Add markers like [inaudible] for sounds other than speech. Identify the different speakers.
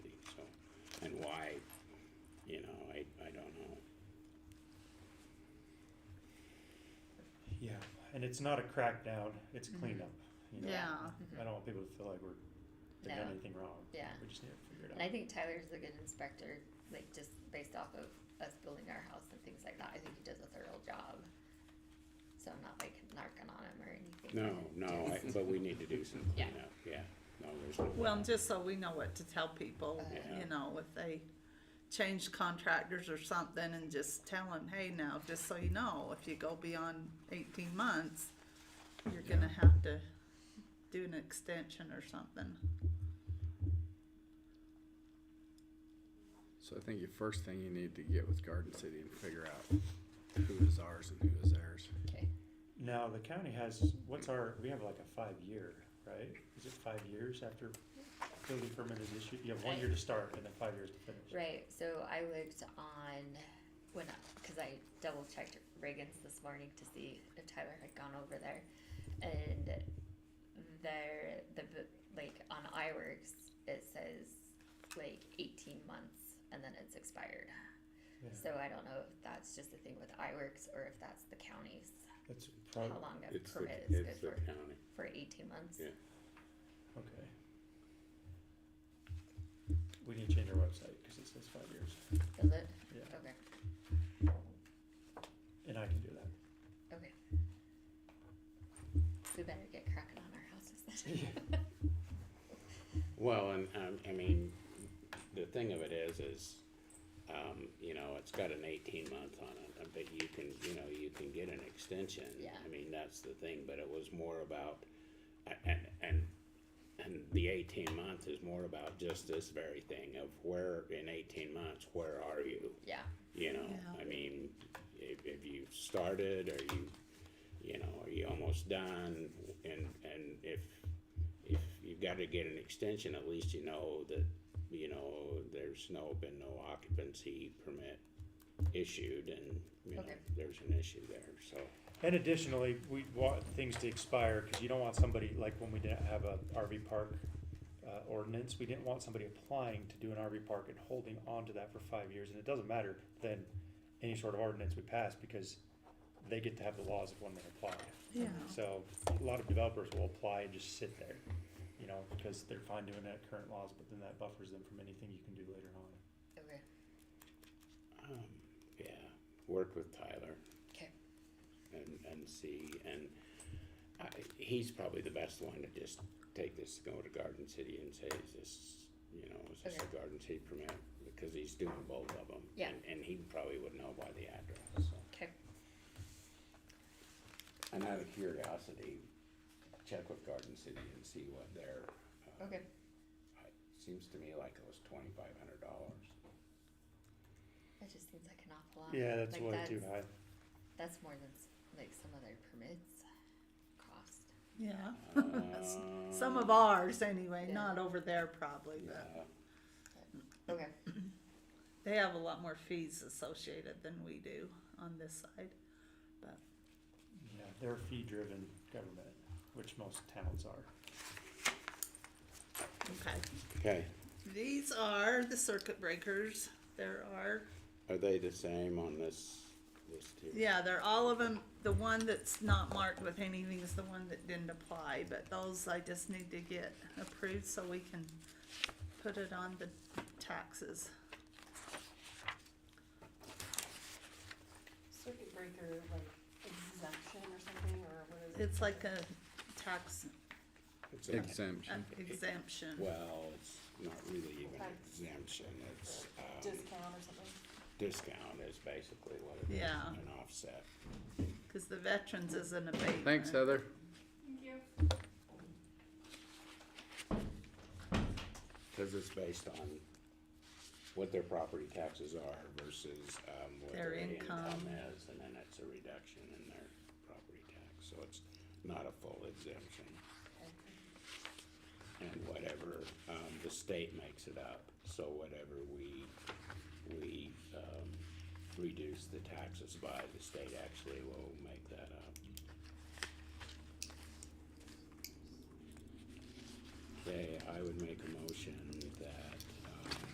Speaker 1: and it's not a crackdown, it's
Speaker 2: Mhm.
Speaker 1: cleanup. You know?
Speaker 2: Yeah.
Speaker 1: I don't want people to feel like we're they've done
Speaker 2: No.
Speaker 1: anything wrong.
Speaker 2: Yeah.
Speaker 1: We just need to figure it out.
Speaker 2: And I think Tyler's a good inspector, like just based off of us building our house and things like that. I think he does a thorough job. So I'm not like narking on him or anything.
Speaker 3: No, no, I- but we need to do some
Speaker 2: Yeah.
Speaker 3: cleanup, yeah, no, there's no.
Speaker 4: Well, and just so we know what to tell people,
Speaker 3: Yeah.
Speaker 4: you know, if they change contractors or something and just tell them, hey, now, just so you know, if you go beyond eighteen months, you're gonna have to do an extension or something.
Speaker 5: So I think your first thing you need to get with Garden City and figure out who is ours and who is theirs.
Speaker 2: Okay.
Speaker 1: Now, the county has, what's our, we have like a five-year, right? Is it five years after building permit is issued? You have one year to start and then five years to finish.
Speaker 2: Right. So I looked on when because I double checked Reagan's this morning to see if Tyler had gone over there, and there the b- like on iWorks it says like 18 months and then it's expired.
Speaker 1: Yeah.
Speaker 2: So I don't know if that's just a thing with iWorks or if that's the county's
Speaker 1: That's
Speaker 2: how
Speaker 1: probably,
Speaker 2: long a
Speaker 3: Um, It's the,
Speaker 2: permit is good
Speaker 3: it's the
Speaker 2: for,
Speaker 3: county,
Speaker 2: for 18 months.
Speaker 3: Yeah.
Speaker 1: okay. We need to change our website because it says five years.
Speaker 2: Is it?
Speaker 1: Yeah,
Speaker 2: Okay.
Speaker 1: and I can do that.
Speaker 2: Okay. We better get cracking on our houses
Speaker 1: [laughs]
Speaker 2: then.
Speaker 3: well, and, um, I mean, the thing of it is, is, um, you know, it's got an eighteen month on it, uh, but you can, you know, you can get an extension.
Speaker 2: Yeah.
Speaker 3: I mean, that's the thing, but it was more about, a- and, and, and the eighteen months is more about just this very thing of where, in eighteen months, where are you?
Speaker 2: Yeah.
Speaker 3: You know,
Speaker 4: Yeah.
Speaker 3: I mean, if, if you started, are you, you know, are you almost done? And, and if, if you've gotta get an extension, at least you know that, you know, there's no, been no occupancy permit issued and, you know,
Speaker 2: Okay.
Speaker 3: there's an issue there, so.
Speaker 1: And additionally, we want things to expire because you don't want somebody, like when we didn't have a RV park uh, ordinance, we didn't want somebody applying to do an RV park and holding on to that for five years. And it doesn't matter then any sort of ordinance we pass because they get to have the laws of when they applied.
Speaker 4: Yeah.
Speaker 1: So a lot of developers will apply and just sit there, you know, because they're fine doing that current laws, but then that buffers them from anything you can do later on.
Speaker 2: Okay.
Speaker 3: Um, yeah, work with Tyler.
Speaker 2: 'Kay.
Speaker 3: And, and see, and I, he's probably the best one to just take this, go to Garden City and say, is this, you know, is this a
Speaker 2: Okay.
Speaker 3: Garden City permit? Because he's doing both of them.
Speaker 2: Yeah.
Speaker 3: And, and he probably would know by the address, so.
Speaker 2: 'Kay.
Speaker 3: And out of curiosity, check with Garden City and see what their, uh,
Speaker 2: Okay.
Speaker 3: seems to me like it was twenty-five hundred dollars.
Speaker 2: That just seems like an awful lot.
Speaker 1: Yeah, that's
Speaker 2: like
Speaker 1: way
Speaker 2: that's,
Speaker 1: too high.
Speaker 2: That's more than s- like some other permits cost.
Speaker 4: Yeah.
Speaker 3: Uh,
Speaker 4: Some of ours anyway, not over there probably, but
Speaker 3: Yeah.
Speaker 2: Okay.
Speaker 4: they have a lot more fees associated than we do on this side.
Speaker 1: Yeah, they're a fee-driven government, which most towns are.
Speaker 4: Okay.
Speaker 3: Okay,
Speaker 4: These are the circuit breakers. There are
Speaker 3: are they the same on this list here?
Speaker 4: Yeah, they're all of them. The one that's not marked with anything is the one that didn't apply, but those I just need to get approved so we can put it on the taxes.
Speaker 6: circuit breaker like exemption or something, or what is it?
Speaker 4: It's like a tax
Speaker 3: It's a-
Speaker 4: uh,
Speaker 5: Exemption.
Speaker 4: exemption.
Speaker 3: Well, it's not really even an exemption, it's, um,
Speaker 6: Discount or something?
Speaker 3: discount is basically what it is,
Speaker 4: Yeah.
Speaker 3: an offset.
Speaker 4: Cause the veterans is an abatement.
Speaker 5: Thanks, Heather.
Speaker 6: Thank you.
Speaker 3: Cause it's based on what their property taxes are versus, um, what
Speaker 4: Their
Speaker 3: their income
Speaker 4: income.
Speaker 3: is, and then it's a reduction in their property tax, so it's not a full exemption. And whatever, um, the state makes it up, so whatever we, we, um, reduce the taxes by, the state actually will make that up. Okay, I would make a motion um,